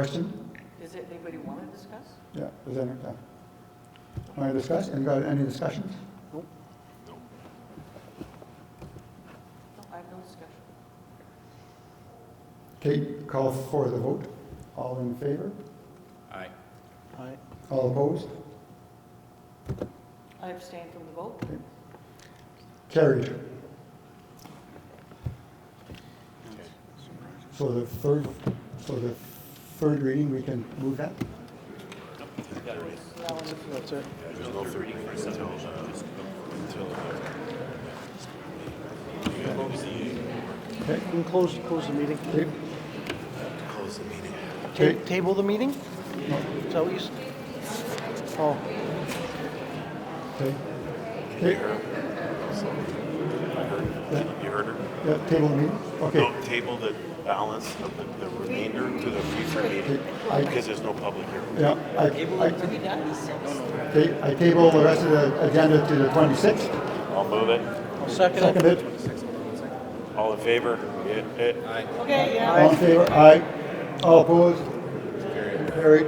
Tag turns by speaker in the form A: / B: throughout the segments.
A: Question?
B: Does it- anybody want to discuss?
A: Yeah, is there, yeah. Want to discuss, any, any discussions?
B: No, I have no discussion.
A: Kate, call for the vote. All in favor?
C: Aye.
D: Aye.
A: All opposed?
B: I abstain from the vote.
A: Carried. So the third, so the third reading, we can move that?
B: Now, if you-
D: That's it.
A: Okay,
D: You can close, close the meeting.
A: Kate?
D: Ta- Table the meeting? Is that what you s- Oh,
A: Okay. Kate?
E: You heard her?
A: Yeah, table the meeting? Okay.
E: No, table the balance of the the remainder to the future meeting
A: I-
E: because there's no public hearing.
A: Yeah, I, I,
B: Are we done? Yes.
A: ta- I table the rest of the agenda to the twenty-sixth.
E: I'll move it.
D: I'll second it.
A: Seconded.
E: All in favor? Yeah, eh.
B: Okay, yeah.
A: All in favor? Aye. All opposed? Carried.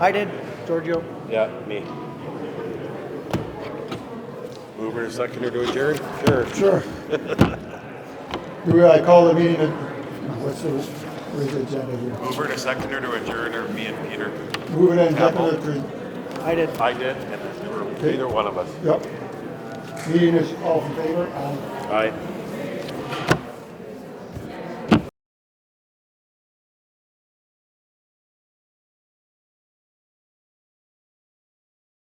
D: I did, Giorgio.
E: Yeah, me. Mover and seconder to adjourn? Sure.
A: Sure. Do I call the meeting, at- what's the, where's the agenda here?
E: Mover and seconder to adjourn or me and Peter?
A: Move it in definite to,
D: I did.
E: I did, and then there were either one of us.
A: yep. Meeting is all in favor, aye.
E: Aye.